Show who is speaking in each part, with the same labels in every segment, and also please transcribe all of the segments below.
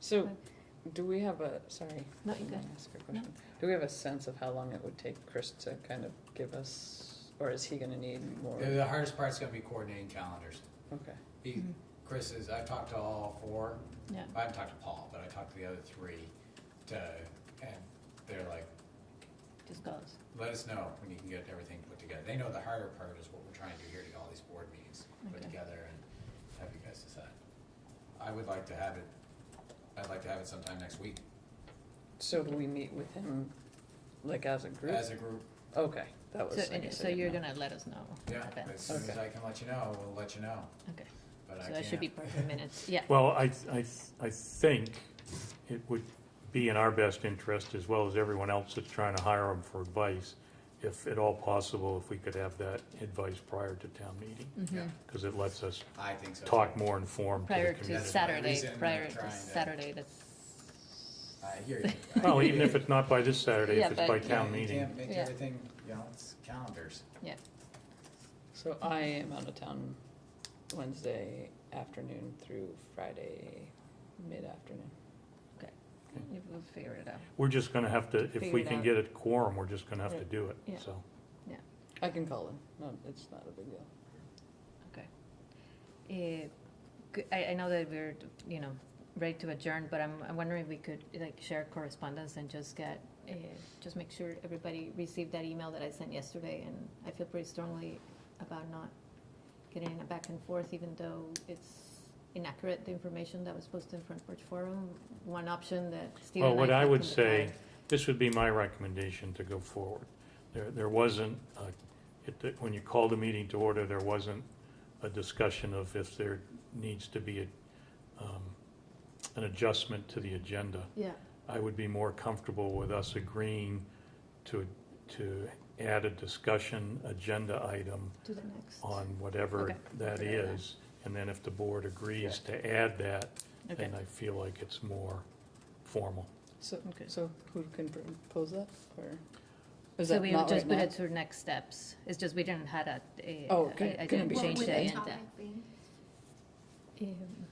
Speaker 1: So,
Speaker 2: Okay.
Speaker 1: do we have a, sorry.
Speaker 2: No,
Speaker 1: I'm
Speaker 2: you're
Speaker 1: gonna
Speaker 2: good.
Speaker 1: Ask a question. Do we have a sense of how long it would take Chris to kind of give us, or is he gonna need more?
Speaker 3: The, the hardest part's gonna be coordinating calendars.
Speaker 1: Okay,
Speaker 3: He,
Speaker 2: Mhm.
Speaker 3: Chris is, I've talked to all four,
Speaker 2: Yeah,
Speaker 3: I haven't talked to Paul, but I talked to the other three to, and they're like,
Speaker 2: just goes.
Speaker 3: let us know when you can get everything put together. They know the harder part is what we're trying to do here to get all these board meetings put
Speaker 2: Okay.
Speaker 3: together and have you guys decide. I would like to have it, I'd like to have it sometime next week
Speaker 1: so do we meet with him, like as a group?
Speaker 3: as a group.
Speaker 1: Okay, that was,
Speaker 2: So,
Speaker 1: I
Speaker 2: and-
Speaker 1: guess I
Speaker 2: so
Speaker 1: didn't
Speaker 2: you're
Speaker 1: know.
Speaker 2: gonna let us know?
Speaker 3: Yeah,
Speaker 2: about that.
Speaker 3: as soon as
Speaker 1: Okay.
Speaker 3: I can let you know, we'll let you know,
Speaker 2: Okay,
Speaker 3: but I
Speaker 2: so
Speaker 3: can't.
Speaker 2: that should be perfect minutes, yeah.
Speaker 4: Well, I, I, I think it would be in our best interest, as well as everyone else that's trying to hire them for advice, if at all possible, if we could have that advice prior to town meeting,
Speaker 3: Yeah,
Speaker 2: Mhm.
Speaker 4: because it lets us
Speaker 3: I think so.
Speaker 4: talk
Speaker 3: too.
Speaker 4: more informed to
Speaker 2: Prior
Speaker 4: the
Speaker 2: to
Speaker 4: community.
Speaker 3: That's my
Speaker 2: Saturday,
Speaker 3: reason I'm
Speaker 2: prior to
Speaker 3: trying to-
Speaker 2: Saturday, that's.
Speaker 3: I hear you. I
Speaker 4: Well,
Speaker 3: hear
Speaker 4: even
Speaker 3: you.
Speaker 4: if it's not by this Saturday,
Speaker 2: Yeah,
Speaker 4: if it's
Speaker 2: but-
Speaker 4: by
Speaker 2: Yeah,
Speaker 4: town
Speaker 3: You
Speaker 4: meeting,
Speaker 3: can't make
Speaker 2: Yeah.
Speaker 3: everything, you know, it's calendars.
Speaker 2: Yeah,
Speaker 1: So I am out of town Wednesday afternoon through Friday mid-afternoon.
Speaker 2: okay, You- we'll figure it out,
Speaker 4: we're just gonna have to, if
Speaker 2: Figure
Speaker 4: we
Speaker 2: it
Speaker 4: can
Speaker 2: out.
Speaker 4: get a quorum, we're just gonna have to
Speaker 1: Right.
Speaker 4: do
Speaker 2: Yeah.
Speaker 4: it, so.
Speaker 1: I can call him, no, it's not a big deal.
Speaker 2: okay. Eh, g- I, I know that we're, you know, ready to adjourn, but I'm, I'm wondering if we could, like, share correspondence and just get, eh, just make sure everybody received that email that I sent yesterday, and I feel pretty strongly about not getting it back and forth, even though it's inaccurate, the information that was posted in Front Porch Forum. One option that Steve
Speaker 4: Well,
Speaker 2: and
Speaker 4: Oh, what I
Speaker 2: talked
Speaker 4: would
Speaker 2: in the
Speaker 4: say,
Speaker 2: past.
Speaker 4: this would be my recommendation to go forward. There, there wasn't, uh, it, when you called the meeting to order, there wasn't a discussion of if there needs to be a, um, an adjustment to the agenda.
Speaker 2: Yeah,
Speaker 4: I would be more comfortable with us agreeing to, to add a discussion agenda item
Speaker 2: to the next.
Speaker 4: on whatever
Speaker 2: Okay.
Speaker 4: that
Speaker 2: Figure it out.
Speaker 4: is. And then if the board agrees to add that, then I feel like it's more formal.
Speaker 1: So,
Speaker 2: Okay.
Speaker 1: so who can propose that, or? is
Speaker 2: So
Speaker 1: that
Speaker 2: we
Speaker 1: not
Speaker 2: would just
Speaker 1: right
Speaker 2: put
Speaker 1: now?
Speaker 2: it to next steps. It's just we didn't had a, a-
Speaker 1: Oh,
Speaker 2: I-
Speaker 1: can-
Speaker 2: I
Speaker 1: can it
Speaker 2: didn't
Speaker 1: be-
Speaker 2: change
Speaker 1: What
Speaker 2: the
Speaker 1: would
Speaker 2: agenda. Um,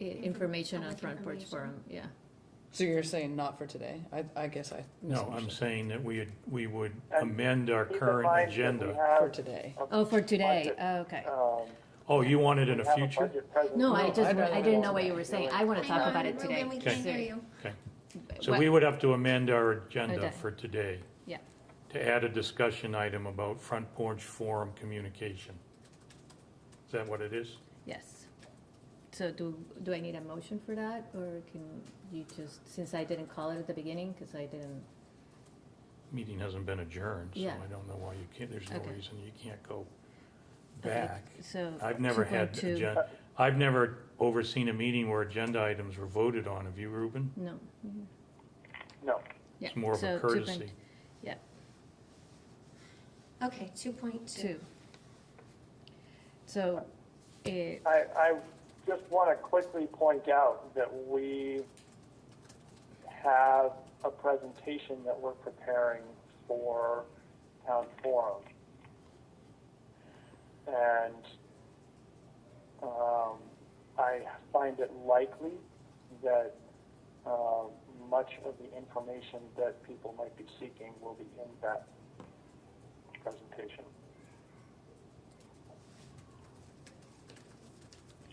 Speaker 2: i- Information on
Speaker 5: Public
Speaker 2: Front Porch
Speaker 5: information.
Speaker 2: Forum, yeah.
Speaker 1: So you're saying not for today? I, I guess I
Speaker 4: No, I'm
Speaker 1: misunderstood.
Speaker 4: saying that we, we would
Speaker 6: And
Speaker 4: amend our
Speaker 6: Keep in
Speaker 4: current
Speaker 6: mind that we
Speaker 4: agenda.
Speaker 1: For
Speaker 6: have,
Speaker 1: today.
Speaker 2: Oh, for today,
Speaker 6: budget,
Speaker 2: okay.
Speaker 6: um,
Speaker 4: Oh, you want it in
Speaker 6: we
Speaker 4: the
Speaker 6: have a
Speaker 4: future?
Speaker 6: budget presentation.
Speaker 2: No, I
Speaker 1: No,
Speaker 2: just,
Speaker 1: I don't
Speaker 2: I
Speaker 1: know
Speaker 2: didn't
Speaker 1: what
Speaker 2: know what
Speaker 1: that
Speaker 2: you were
Speaker 6: is.
Speaker 2: saying. I want to
Speaker 5: Hang
Speaker 2: talk
Speaker 5: on,
Speaker 2: about it
Speaker 5: Ruben,
Speaker 2: today.
Speaker 5: We can't
Speaker 2: So-
Speaker 5: hear you.
Speaker 4: Okay, so
Speaker 2: What-
Speaker 4: we would have to amend our agenda
Speaker 2: Okay.
Speaker 4: for today
Speaker 2: Yeah,
Speaker 4: to add a discussion item about front porch forum communication. Is that what it is?
Speaker 2: yes. So do, do I need a motion for that, or can you just, since I didn't call it at the beginning, because I didn't,
Speaker 4: Meeting hasn't been adjourned, so
Speaker 2: Yeah.
Speaker 4: I don't know why you can't, there's no
Speaker 2: Okay.
Speaker 4: reason you can't go
Speaker 2: Okay,
Speaker 4: back.
Speaker 2: so.
Speaker 4: I've never had,
Speaker 2: 2.2
Speaker 4: agen- I've never overseen a meeting where agenda items were voted on. Have you, Ruben?
Speaker 2: No.
Speaker 6: No,
Speaker 2: Yeah,
Speaker 4: It's more of
Speaker 2: so
Speaker 4: a
Speaker 2: 2.2
Speaker 4: courtesy.
Speaker 2: Yeah,
Speaker 5: Okay, two point two.
Speaker 2: two. So, it,
Speaker 6: I, I just want to quickly point out that we have a presentation that we're preparing for town forum. And um, I find it likely that uh, much of the information that people might be seeking will be in that presentation.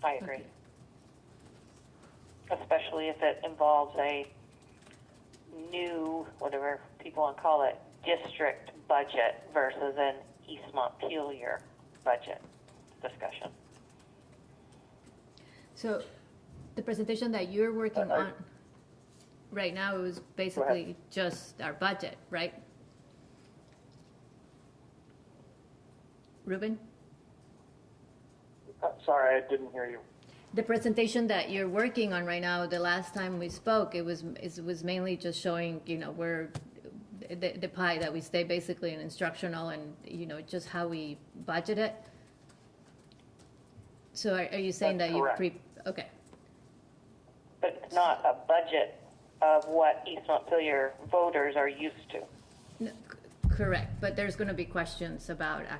Speaker 7: I agree. Especially if it involves a new, whatever people want to call it, district budget versus an East Montpelier budget discussion.
Speaker 2: so the presentation that you're working
Speaker 6: I- I-
Speaker 2: on right now is basically just our budget, right? Ruben,
Speaker 6: Uh, Sorry, I didn't hear you.
Speaker 2: the presentation that you're working on right now, the last time we spoke, it was, it was mainly just showing, you know, where the, the pie that we stay basically in instructional and, you know, just how we budget it. So are, are you saying that
Speaker 6: That's
Speaker 2: you
Speaker 6: correct.
Speaker 2: pre, okay,
Speaker 7: But it's not a budget of what East Montpelier voters are used to.
Speaker 2: No, c- correct, but there's gonna be questions about